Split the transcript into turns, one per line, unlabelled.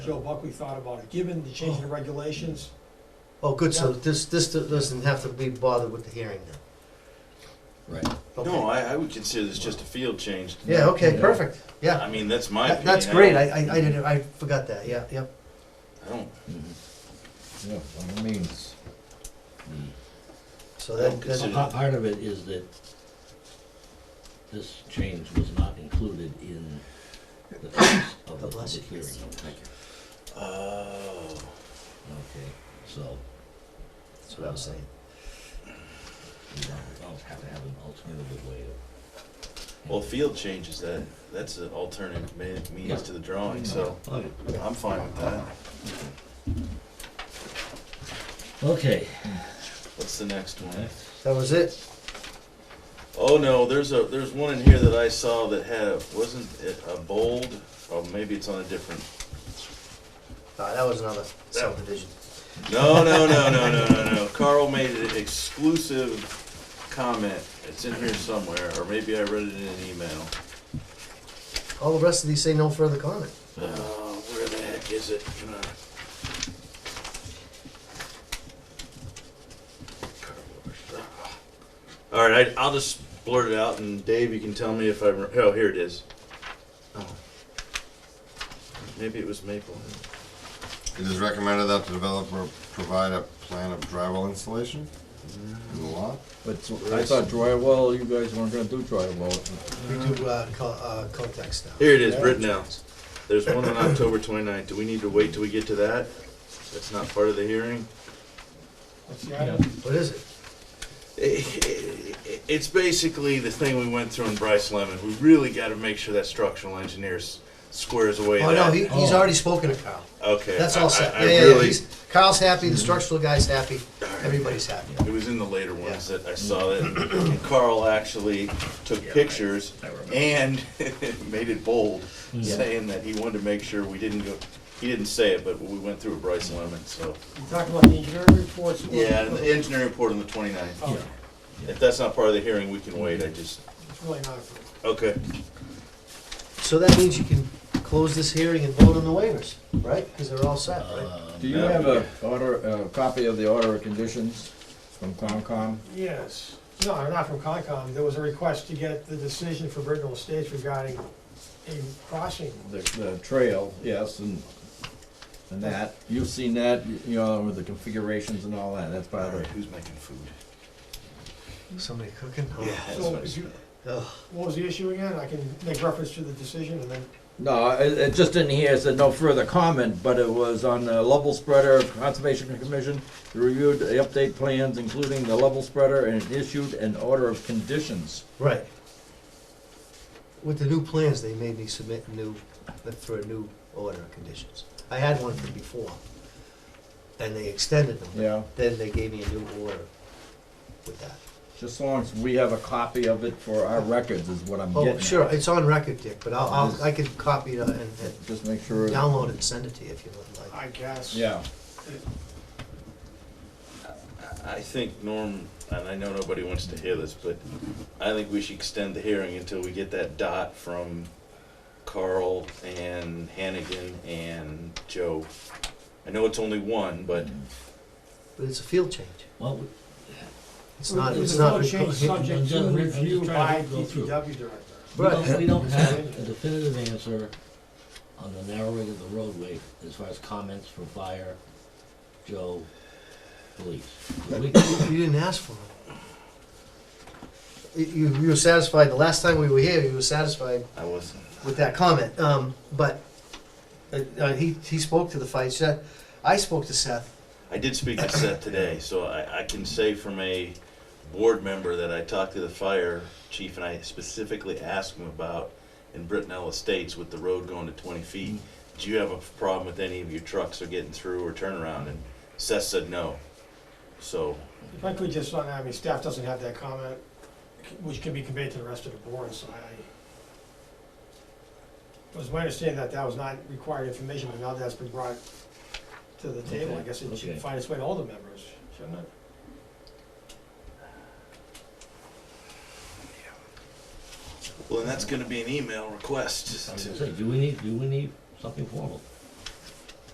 Joe Buckley thought about it, given the change in the regulations,
Oh, good, so this, this doesn't have to be bothered with the hearing then?
Right.
Okay.
No, I, I would consider this just a field change.
Yeah, okay,
Yeah.
perfect, yeah.
I mean, that's my
That-
opinion.
That's great,
I
I, I I didn't, I forgot that, yeah, yeah.
don't- I don't,
Mm-hmm. Yeah, by all means.
So that,
So-
Pa-
that-
Part of it is that this change was not included in the text of the
God bless
public hearing.
oh,
Okay, so
that's what I was saying.
we don't always have to have an alternative way of.
well, field changes, that, that's an alternative ma-
Yeah.
means to the drawing, so I'm fine with that.
Okay.
What's the next one?
That was it?
Oh, no, there's a, there's one in here that I saw that had, wasn't it a bold? Oh, maybe it's on a different,
Ah, that was another subdivision.
no, no, no, no, no, no, no. Carl made an exclusive comment. It's in here somewhere, or maybe I read it in an email.
All the rest of these say no further comment.
Uh, where the heck is it? Can I- All right, I, I'll just blurt it out, and Dave, you can tell me if I. rem- Oh, here it is. Oh. Maybe it was Maple.
It is recommended that the developer provide a plan of drywall installation in the lot.
But I thought drywall, you guys weren't gonna do drywall.
We do, uh, co- uh, context now.
Here it is, Britnell. There's one on October 29th. Do we need to wait till we get to that? That's not part of the hearing.
that's the item.
What is it?
It's basically the thing we went through in Bryce Lemon. We really got to make sure that structural engineer s- squares away.
Oh,
that.
no, he, he's already spoken to Carl.
okay,
That's
I-
all
I-
set.
I
Yeah, yeah, yeah,
really-
he's, Carl's happy, the structural guy's happy, everybody's happy.
It was in the later ones that I saw that, and Carl actually took pictures and made it bold, saying that he wanted to make sure we didn't go. He didn't say it, but we went through a Bryce Lemon. So
You talked about the engineering reports. or-
yeah, and the engineering report on the 29th.
Oh,
If that's not part of the hearing, we can wait. I just
It's really not, approved.
okay.
So that means you can close this hearing and vote on the waivers, right? Because they're all set,
Uh,
right?
Do you have a order, a copy of the order of conditions from Concom?
yes, no, I'm not from Concom, there was a request to get the decision for Brittenell Estates regarding a crossing.
The, the trail, yes, and, and that, you've seen that, you know, with the configurations and all that, that's
All
part of
right,
it.
who's making food?
Somebody cooking?
that's
So,
what I
if you-
Ugh.
What was the issue again? I can make reference to the decision and then,
No, it, it just in here, it said no further comment, but it was on the level spreader of Conservation Commission, They reviewed the update plans, including the level spreader, and issued an order of conditions.
Right. With the new plans, they made me submit new, for a new order of conditions. I had one from before, and they extended them.
Yeah.
Then they gave me a new order with that.
Just so long as we have a copy of it for our records is what I'm getting
Oh,
at.
sure, it's on record, Dick, but I'll, I'll, I could copy it uh, and, and
Just make sure.
download it and send it to you if you would like.
I guess.
Yeah,
I think Norm, and I know nobody wants to hear this, but I think we should extend the hearing until we get that dot from Carl and Hannigan and Joe. I know it's only one, but
But it's a field change.
Well, we-
It's not,
There's
it's
no
not.
change subject to
I'm just
review by
trying to go through.
DPW director.
we don't, we don't
Right.
have a definitive answer on the narrowing of the roadway as far as comments from fire, Joe, police. We-
You didn't ask for it. You, you were satisfied, the last time we were here, you were satisfied
I wasn't.
with that comment, um, but, uh, uh, he, he spoke to the fight, Seth, I spoke to Seth,
I did speak to Seth today, so I, I can say from a board member that I talked to the fire chief and I specifically asked him about in Brittenell Estates with the road going to twenty feet, do you have a problem with any of your trucks are getting through or turn around? And Seth said no. So,
If I could just, I mean, staff doesn't have that comment, which can be conveyed to the rest of the board, so I, it was my understanding that that was not required information, but now that's been brought to the table, I guess it
Okay,
should
okay.
find its way to all the members, shouldn't it?
well, and that's gonna be an email request
I'm
to
gonna say, do we need, do we need something formal?